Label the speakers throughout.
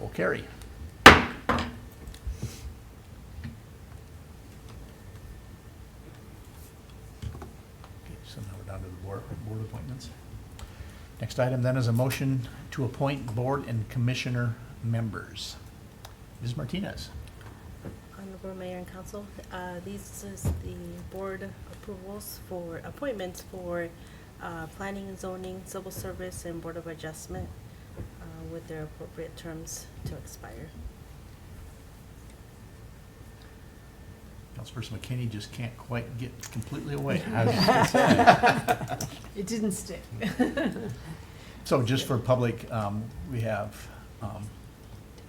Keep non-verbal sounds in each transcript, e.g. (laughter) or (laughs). Speaker 1: will carry. Okay, So now we're down to the board, board appointments. Next item then is a motion to appoint board and commissioner members. Ms. Martinez,
Speaker 2: Honorable Mayor and Council, uh, these is the board approvals for appointments for uh, planning and zoning, civil service, and board of adjustment uh, with their appropriate terms to expire.
Speaker 1: Councilperson McKinney just can't quite get completely away.
Speaker 3: It didn't stick.
Speaker 1: So just for public, um, we have, um,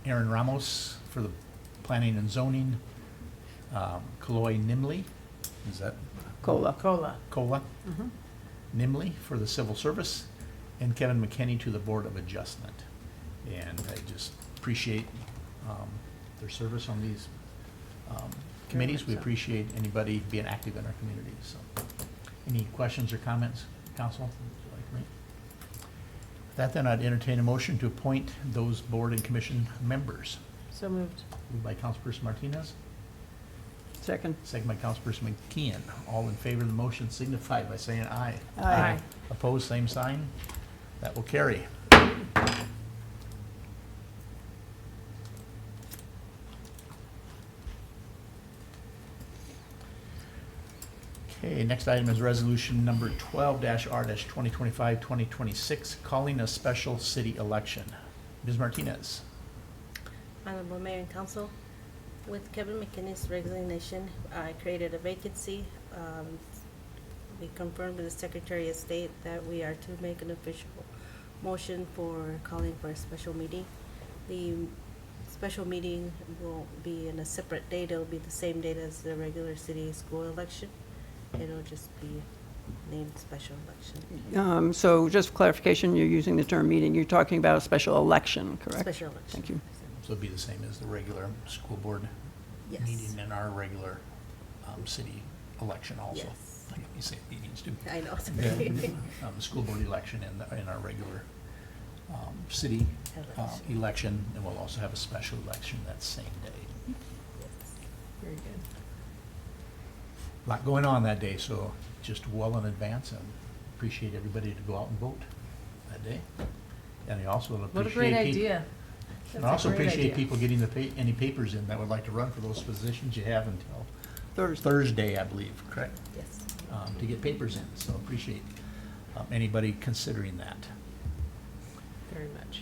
Speaker 1: Aaron Ramos for the planning and zoning, um, Chloe Nimley, is that
Speaker 4: Cola.
Speaker 3: Cola.
Speaker 1: Cola? Nimley for the civil service, and Kevin McKinney to the Board of Adjustment. And I just appreciate, um, their service on these, um, committees. We
Speaker 3: much so.
Speaker 1: appreciate anybody being active in our community, so. Any questions or comments, council? Would you like me? With That then, I'd entertain a motion to appoint those board and commission members.
Speaker 3: So moved.
Speaker 1: Moved by Councilperson Martinez,
Speaker 4: Second.
Speaker 1: second by Councilperson McKeon. All in favor of the motion signify by saying aye.
Speaker 3: Aye.
Speaker 1: Opposed, same sign. That will carry. Okay, next item is resolution number twelve R 2025 2026 calling a special city election. Ms. Martinez,
Speaker 2: Honorable Mayor and Council, with Kevin McKinney's resignation, I created a vacancy. Um, We confirmed with the Secretary of State that we are to make an official motion for calling for a special meeting. The special meeting will be in a separate date. It'll be the same date as the regular city school election. It'll just be named special election,
Speaker 4: Um, So just clarification, you're using the term meeting, you're talking about a special election, correct?
Speaker 2: special election.
Speaker 4: Thank you.
Speaker 1: so it'll be the same as the regular school board
Speaker 2: Yes,
Speaker 1: meeting and our regular, um, city election also.
Speaker 2: Yes.
Speaker 1: I got me saying meetings
Speaker 2: (laughs)
Speaker 1: too.
Speaker 2: I know, sorry.
Speaker 1: the um, school board election and, the- and our regular um, city uh,
Speaker 2: Election.
Speaker 1: election, and we'll also have a special election that same day.
Speaker 2: Yes.
Speaker 3: Very good.
Speaker 1: Lot going on that day, so just well in advance, and appreciate everybody to go out and vote that day. And I also appreciate.
Speaker 3: What a great
Speaker 1: peop-
Speaker 3: idea.
Speaker 1: And
Speaker 3: That's a
Speaker 1: I also
Speaker 3: great
Speaker 1: appreciate
Speaker 3: idea.
Speaker 1: people getting the, pa- any papers in that would like to run for those positions you have until
Speaker 4: Thursday.
Speaker 1: Thursday, I believe, correct?
Speaker 2: Yes.
Speaker 1: um, to get papers in, so appreciate um, anybody considering that.
Speaker 3: Very much.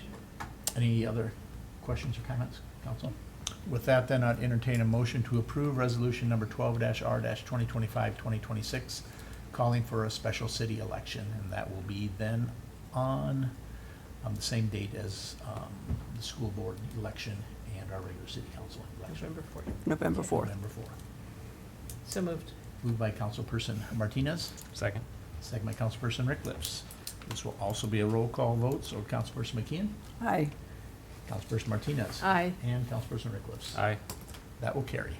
Speaker 1: Any other questions or comments, council? With that, then, I'd entertain a motion to approve resolution number twelve R 2025 2026 calling for a special city election, and that will be then on, um, the same date as, um, the school board election and our regular city council election.
Speaker 3: November 4th.
Speaker 4: November 4th.
Speaker 1: November fourth.
Speaker 3: So moved.
Speaker 1: Moved by Councilperson Martinez.
Speaker 5: Second.
Speaker 1: Second by Councilperson Rickliff. This will also be a roll call vote, so Councilperson McKeon,
Speaker 4: Aye.
Speaker 1: Councilperson Martinez,
Speaker 3: Aye.
Speaker 1: and Councilperson Rickliff.
Speaker 5: Aye.
Speaker 1: That will carry.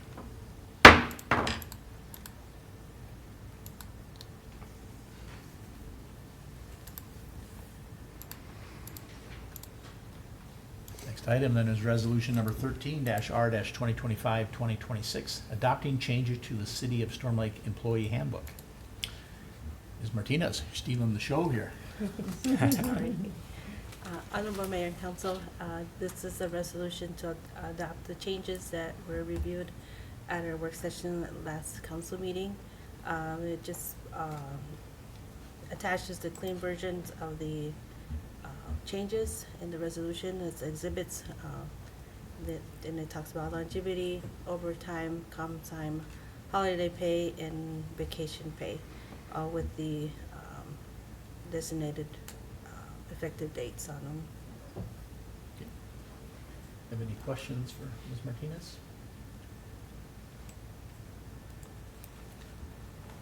Speaker 1: Next item then is resolution number thirteen R 2025 2026 adopting changes to the City of Storm Lake Employee Handbook. Ms. Martinez, you're stealing the show here.
Speaker 2: Sorry. Uh, Honorable Mayor and Council, uh, this is a resolution to adopt the changes that were reviewed at our work session at last council meeting. Um, It just um, attaches the clean versions of the uh, changes in the resolution as exhibits. uh, that- And it talks about longevity, overtime, comp time, holiday pay, and vacation pay, all with the um, designated uh, effective dates on them.
Speaker 1: Have any questions for Ms. Martinez?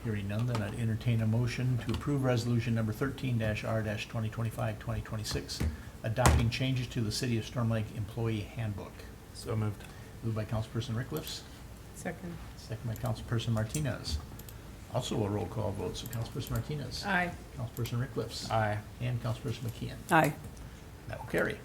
Speaker 1: Hearing none, then I'd entertain a motion to approve resolution number thirteen R 2025 2026 adopting changes to the City of Storm Lake Employee Handbook.
Speaker 5: So moved.
Speaker 1: Moved by Councilperson Rickliff,
Speaker 3: Second.
Speaker 1: second by Councilperson Martinez. Also a roll call vote, so Councilperson Martinez.
Speaker 3: Aye.
Speaker 1: Councilperson Rickliff.
Speaker 5: Aye.
Speaker 1: And Councilperson McKeon.
Speaker 4: Aye.
Speaker 1: That will carry.